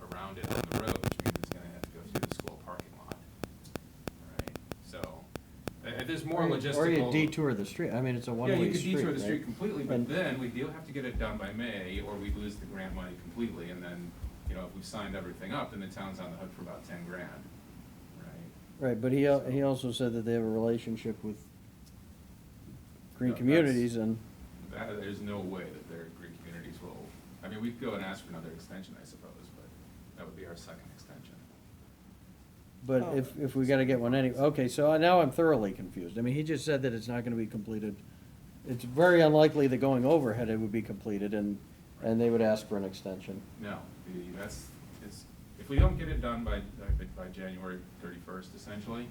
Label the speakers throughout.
Speaker 1: around it on the road, which means it's gonna have to go through the school parking lot. Right, so, uh, there's more
Speaker 2: Or you-
Speaker 1: logistical.
Speaker 2: Or you detour the street, I mean, it's a one-way
Speaker 1: Yeah,
Speaker 2: street,
Speaker 1: you could detour the
Speaker 2: right?
Speaker 1: street completely, but
Speaker 2: And-
Speaker 1: then we do have to get it done by May, or we lose the grant money completely, and then, you know, if we've signed everything up, then the town's on the hook for about ten grand, right?
Speaker 2: Right, but he, al- he also said that they have a relationship with
Speaker 1: No,
Speaker 2: Green
Speaker 1: that's-
Speaker 2: Communities and,
Speaker 1: That, there's no way that their green communities will, I mean, we'd go and ask for another extension, I suppose, but that would be our second extension.
Speaker 2: but
Speaker 1: Oh.
Speaker 2: if, if we gotta get one anyway, okay, so I- now I'm thoroughly confused. I mean, he just said that it's not gonna be completed. It's very unlikely that going overhead it would be completed and, and they would ask for an extension.
Speaker 1: No, the, that's, it's, if we don't get it done by, by- by January thirty-first essentially,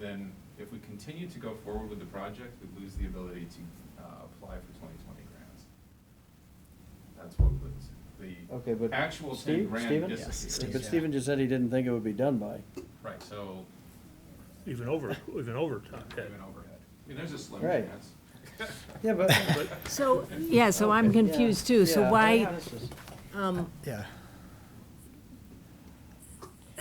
Speaker 1: then if we continue to go forward with the project, we lose the ability to, uh, apply for twenty twenty grants. That's what we lose.
Speaker 2: Okay, but
Speaker 1: The actual ten
Speaker 2: Steve,
Speaker 1: grand
Speaker 2: Stephen?
Speaker 1: disappears.
Speaker 2: But Stephen just said he didn't think it would be done by.
Speaker 1: Right, so,
Speaker 3: Even over, even over top.
Speaker 1: even overhead. I mean, there's a slim
Speaker 2: Right.
Speaker 1: chance.
Speaker 2: Yeah, but.
Speaker 4: So, yeah, so I'm confused too, so
Speaker 2: Yeah,
Speaker 4: why,
Speaker 2: yeah, this is-
Speaker 4: um,
Speaker 5: Yeah.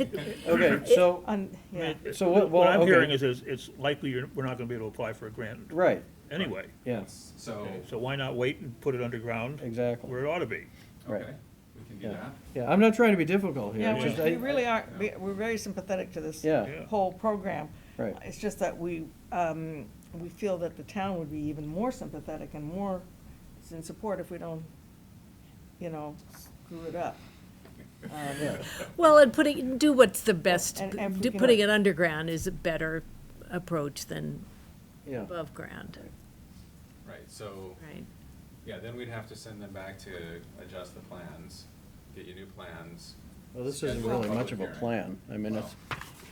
Speaker 2: Okay, so,
Speaker 6: On, yeah,
Speaker 2: So what- well,
Speaker 3: I'm
Speaker 2: okay.
Speaker 3: hearing is, is it's likely you're, we're not gonna be able to apply for a grant
Speaker 2: right,
Speaker 3: anyway.
Speaker 2: yeah,
Speaker 1: So,
Speaker 3: So why not wait and put it underground
Speaker 2: exactly,
Speaker 3: where it ought to be?
Speaker 2: right.
Speaker 1: okay, we can do
Speaker 2: Yeah,
Speaker 1: that.
Speaker 2: yeah, I'm not trying to be difficult here.
Speaker 6: yeah,
Speaker 2: it's
Speaker 6: we,
Speaker 2: just I-
Speaker 6: we really are, we- we're very sympathetic to this
Speaker 2: Yeah,
Speaker 6: whole program.
Speaker 2: right.
Speaker 6: It's just that we, um, we feel that the town would be even more sympathetic and more in support if we don't, you know, screw it up. Um,
Speaker 4: Uh, well, and putting, do what's the best,
Speaker 6: And- and if we
Speaker 4: do-
Speaker 6: can-
Speaker 4: putting it underground is a better approach than
Speaker 2: Yeah,
Speaker 4: above ground,
Speaker 1: Right, so
Speaker 4: right?
Speaker 1: Yeah, then we'd have to send them back to adjust the plans, get you new plans.
Speaker 2: well, this isn't
Speaker 1: Schedule a
Speaker 2: really much
Speaker 1: public
Speaker 2: of
Speaker 1: hearing.
Speaker 2: a plan. I mean, it's,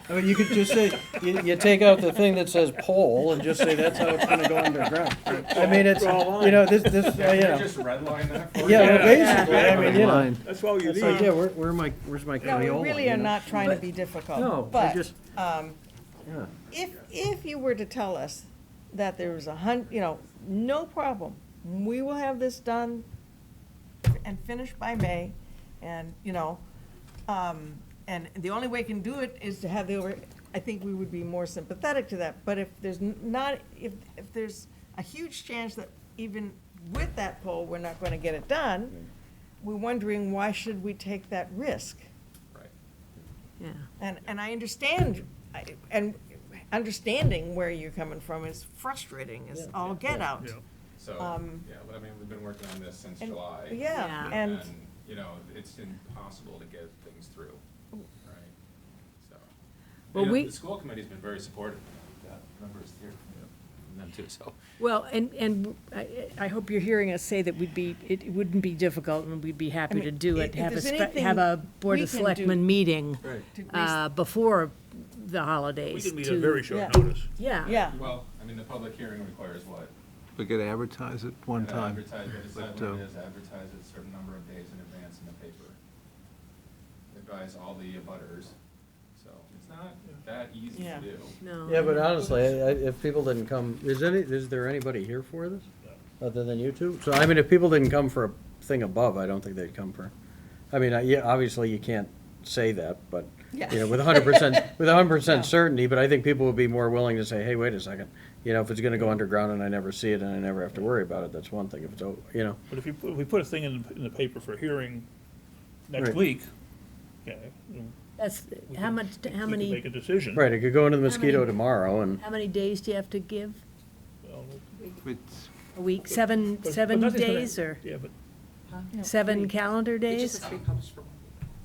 Speaker 2: I mean, you could just say, you, you take out the thing that says pole and just say that's how it's gonna go underground. I mean, it's, you know, this, this, uh, you
Speaker 1: Yeah,
Speaker 2: know,
Speaker 1: can you just Oh, redline that for
Speaker 2: yeah,
Speaker 1: us?
Speaker 2: well, basically, I mean, you know.
Speaker 3: That's all you
Speaker 2: It's like,
Speaker 3: need.
Speaker 2: yeah, where, where my, where's my
Speaker 6: No,
Speaker 2: Crayola?
Speaker 6: we really
Speaker 2: you
Speaker 6: are
Speaker 2: know?
Speaker 6: not trying to be
Speaker 2: No,
Speaker 6: difficult,
Speaker 2: I
Speaker 6: but,
Speaker 2: just,
Speaker 6: um,
Speaker 2: yeah,
Speaker 6: if, if you were to tell us that there was a hun, you know, no problem, we will have this done and finished by May, and, you know, um, and the only way you can do it is to have the, over- I think we would be more sympathetic to that, but if there's n- not, if, if there's a huge chance that even with that poll, we're not gonna get it done, we're wondering, why should we take that risk?
Speaker 1: Right.
Speaker 4: Yeah,
Speaker 6: And, and I understand, I- and understanding where you're coming from is frustrating, is all get out.
Speaker 3: Yeah.
Speaker 1: So,
Speaker 6: Um,
Speaker 1: yeah, but I mean, we've been working on this since
Speaker 6: And-
Speaker 1: July.
Speaker 6: Yeah,
Speaker 4: Yeah.
Speaker 6: and,
Speaker 1: you know, it's impossible to get things through, right? So.
Speaker 4: Well,
Speaker 1: You know,
Speaker 4: we-
Speaker 1: The school committee's been very supportive. That number's here. from Them too, so.
Speaker 4: well, and, and I, I hope you're hearing us say that we'd be, it wouldn't be difficult and we'd be happy to
Speaker 6: mean,
Speaker 4: do
Speaker 6: i-
Speaker 4: it,
Speaker 6: if
Speaker 4: have a,
Speaker 6: there's
Speaker 4: spe-
Speaker 6: anything
Speaker 4: have a Board
Speaker 6: we
Speaker 4: of
Speaker 6: can do-
Speaker 4: Selectmen meeting,
Speaker 1: Right.
Speaker 6: to
Speaker 4: uh, before the holidays.
Speaker 3: We can meet
Speaker 4: to-
Speaker 3: on very short
Speaker 6: Yeah.
Speaker 3: notice.
Speaker 4: Yeah.
Speaker 6: yeah,
Speaker 1: Well, I mean, the public hearing requires what?
Speaker 5: We could advertise it one
Speaker 1: Uh,
Speaker 5: time.
Speaker 1: Advertise, they decide
Speaker 5: but,
Speaker 1: what
Speaker 5: uh,
Speaker 1: it is, advertise it a certain number of days in advance in the paper. Advise all the abutters, so it's not that easy to
Speaker 6: Yeah.
Speaker 1: do.
Speaker 4: No.
Speaker 2: yeah, but honestly, I, I, if people didn't come, is any, is there anybody here for this? Other than you two? So, I mean, if people didn't come for a thing above, I don't think they'd come for, I mean, I- yeah, obviously you can't say that, but, you know, with hundred percent, with hundred percent certainty, but I think people would be more willing to say, hey, wait a second. You know, if it's gonna go underground and I never see it and I never have to worry about it, that's one thing. If it's, o- you know,
Speaker 3: But if you, put- if we put a thing in, the- in the paper for hearing next
Speaker 2: Right.
Speaker 3: week, okay, then
Speaker 4: That's,
Speaker 3: we
Speaker 4: how
Speaker 3: can-
Speaker 4: much,
Speaker 3: we
Speaker 4: how
Speaker 3: can
Speaker 4: many,
Speaker 3: Make a decision.
Speaker 2: right, it could go into the
Speaker 4: How many-
Speaker 2: mosquito tomorrow and,
Speaker 4: how many days do you have to give?
Speaker 3: Well,
Speaker 5: It's,
Speaker 4: A week, seven,
Speaker 3: but-
Speaker 4: seven
Speaker 3: but nothing's gonna-
Speaker 4: days or
Speaker 3: Yeah, but
Speaker 4: seven calendar
Speaker 7: It's
Speaker 4: days?
Speaker 7: just a three published for one.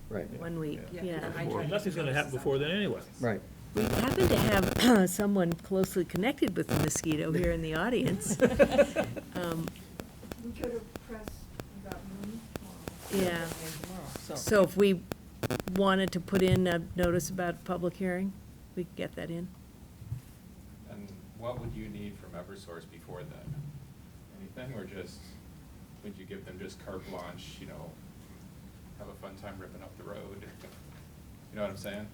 Speaker 2: right,
Speaker 4: One week,
Speaker 7: Yeah,
Speaker 4: yeah.
Speaker 7: because I tried to
Speaker 3: nothing's gonna
Speaker 7: notice
Speaker 3: happen
Speaker 7: this
Speaker 3: before
Speaker 7: on-
Speaker 3: then anyway.
Speaker 2: right.
Speaker 4: We happen to have someone closely connected with the mosquito here in the audience. Um,
Speaker 8: We go to press about noon tomorrow.
Speaker 4: Yeah,
Speaker 6: so.
Speaker 4: so if we wanted to put in a notice about public hearing, we could get that in.
Speaker 1: And what would you need from Eversource before then? Anything, or just, would you give them just carte blanche, you know, have a fun time ripping up the road? You know what I'm saying?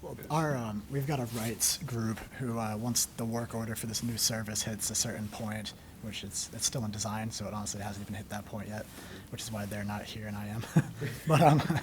Speaker 7: Well,
Speaker 1: Because-
Speaker 7: Our, um, we've got a rights group who, uh, once the work order for this new service hits a certain point, which it's, it's still in design, so it honestly hasn't even hit that point yet, which is why they're not here and I am. But, um,